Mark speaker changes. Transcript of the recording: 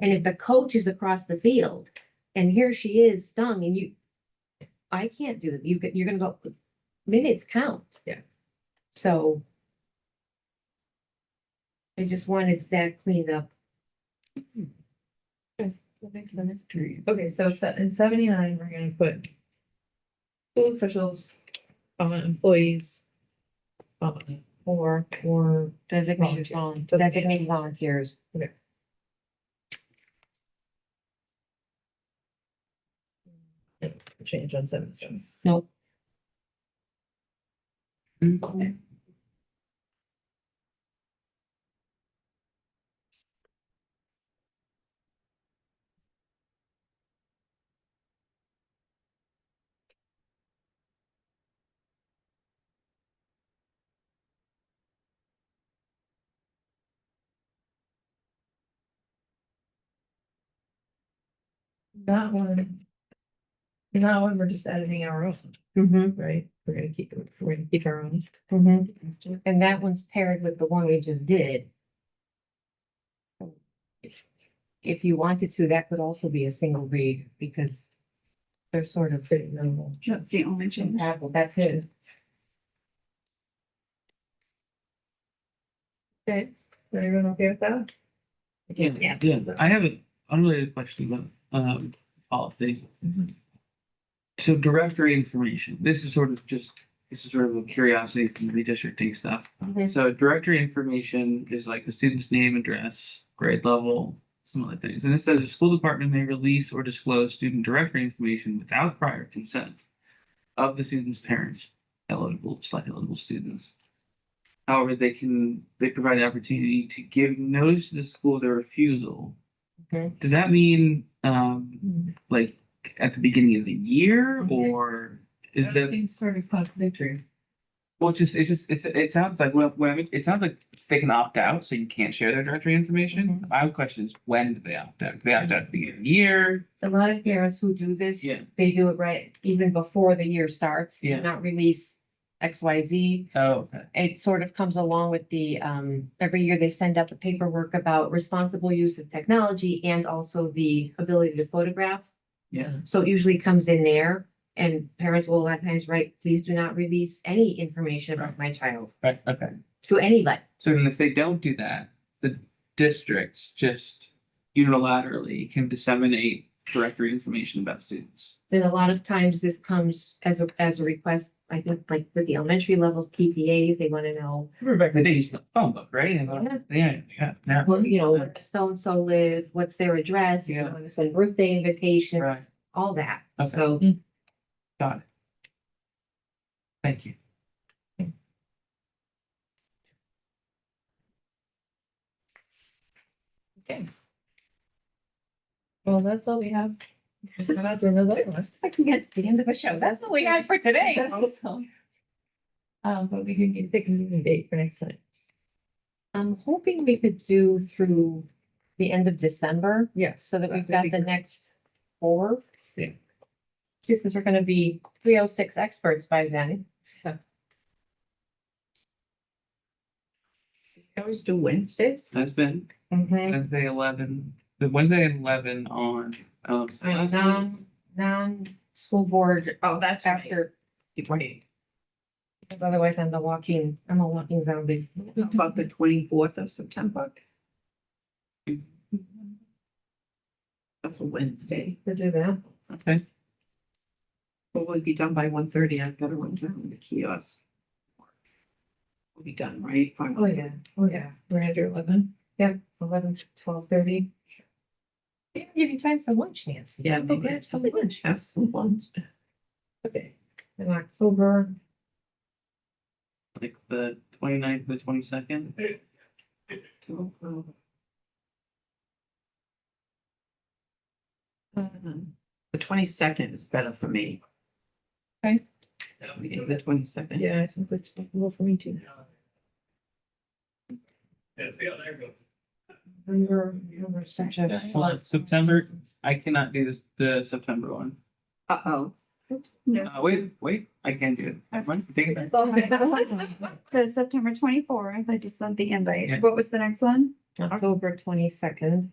Speaker 1: And if the coach is across the field and here she is stung and you, I can't do it. You get, you're gonna go, minutes count.
Speaker 2: Yeah.
Speaker 1: So. I just wanted that cleaned up.
Speaker 2: That makes sense. Okay, so se- in seventy-nine, we're gonna put school officials, um, employees, um, or, or
Speaker 1: Designated
Speaker 2: Volunteer.
Speaker 1: volun-
Speaker 2: Doesn't-
Speaker 1: designated volunteers.
Speaker 2: change on seventy-seven.
Speaker 1: Nope.
Speaker 2: Okay. That one. That one, we're just editing our own
Speaker 1: Mm-hmm,
Speaker 2: right? We're gonna keep, we're gonna keep our own.
Speaker 1: mm-hmm. And that one's paired with the one we just did. If you wanted to, that could also be a single read because they're sort of
Speaker 2: Pretty minimal.
Speaker 3: That's the only change.
Speaker 1: compatible. That's it.
Speaker 2: Okay, is everyone okay with that?
Speaker 3: Yeah.
Speaker 4: Yeah, I have an unrelated question about um policy.
Speaker 2: Mhm.
Speaker 4: So directory information, this is sort of just, this is sort of a curiosity from the districting stuff.
Speaker 1: Mhm.
Speaker 4: So directory information is like the student's name, address, grade level, some other things. And it says the school department may release or disclose student directory information without prior consent of the student's parents, eligible, select eligible students. However, they can, they provide the opportunity to give notice to the school of their refusal.
Speaker 1: Okay.
Speaker 4: Does that mean, um,
Speaker 2: Mm.
Speaker 4: like at the beginning of the year
Speaker 1: Mhm.
Speaker 4: or is
Speaker 2: That
Speaker 4: that?
Speaker 2: Seems sort of contradictory.
Speaker 4: Well, it just, it just, it's, it sounds like, well, when, I mean, it sounds like they can opt out, so you can't share their directory information. My question is, when do they opt out? Do They opt out at the beginning of the year?
Speaker 1: A lot of parents who do this,
Speaker 4: Yeah.
Speaker 1: they do it right even before the year starts. do
Speaker 4: Yeah.
Speaker 1: Not release X, Y, Z.
Speaker 4: Oh, okay.
Speaker 1: It sort of comes along with the, um, every year they send out the paperwork about responsible use of technology and also the ability to photograph.
Speaker 4: Yeah.
Speaker 1: So it usually comes in there and parents will a lot of times write, please do not release any information about my child
Speaker 4: Right, okay.
Speaker 1: to anybody.
Speaker 4: So then if they don't do that, the districts just unilaterally can disseminate directory information about students.
Speaker 1: Then a lot of times this comes as a, as a request, I think like with the elementary levels PTAs, they want to know
Speaker 4: Remember back in the day, you used the phone book, right? And,
Speaker 1: Yeah.
Speaker 4: Yeah, yeah, yeah.
Speaker 1: Well, you know, where so-and-so live, what's their address, you
Speaker 4: Yeah.
Speaker 1: know, send birthday invitations,
Speaker 4: Right.
Speaker 1: all that,
Speaker 4: Okay.
Speaker 1: so.
Speaker 4: Got it. Thank you.
Speaker 2: Well, that's all we have. We're not doing those other ones.
Speaker 1: It's like you get to the end of a show, that's what we had for today.
Speaker 2: Also. Um, but we do need to pick a meeting date for next time.
Speaker 1: I'm hoping we could do through the end of December,
Speaker 2: Yes.
Speaker 1: so that we've got
Speaker 2: That would be
Speaker 1: the
Speaker 2: great.
Speaker 1: next four.
Speaker 4: Yeah.
Speaker 1: Just since we're gonna be three oh six experts by then,
Speaker 2: Always do Wednesdays.
Speaker 4: That's been Wednesday eleven, the Wednesday eleven on, um.
Speaker 1: So non, non-school board
Speaker 2: Oh, that's
Speaker 1: after,
Speaker 2: Right.
Speaker 1: because otherwise I'm the walking, I'm a walking zombie.
Speaker 3: About the twenty-fourth of September. That's a Wednesday.
Speaker 1: To do that.
Speaker 4: Okay,
Speaker 3: But we'll be done by one thirty. I've got to run down to the kiosk. We'll be done, right? Fine.
Speaker 1: Oh, yeah.
Speaker 2: Oh, yeah, we're under eleven.
Speaker 1: Yeah, eleven to twelve thirty. Didn't give you time for lunch, Nancy.
Speaker 3: Yeah,
Speaker 1: Go
Speaker 3: maybe
Speaker 1: grab Oh, some lunch.
Speaker 3: Have some lunch.
Speaker 2: Okay.
Speaker 1: In October,
Speaker 4: like the 29th the twenty-second.
Speaker 3: The twenty-second is better for me.
Speaker 2: Okay.
Speaker 3: The twenty-second.
Speaker 2: Yeah, I think that's possible for me too.
Speaker 1: November, November section.
Speaker 4: September, I cannot do this, the September one.
Speaker 3: Uh-oh.
Speaker 4: Uh, wait, wait, I can do it. One thing,
Speaker 1: Oh,
Speaker 5: So September twenty-fourth, I just sent the
Speaker 4: Yeah.
Speaker 5: invite. What was the next one?
Speaker 1: October twenty-second.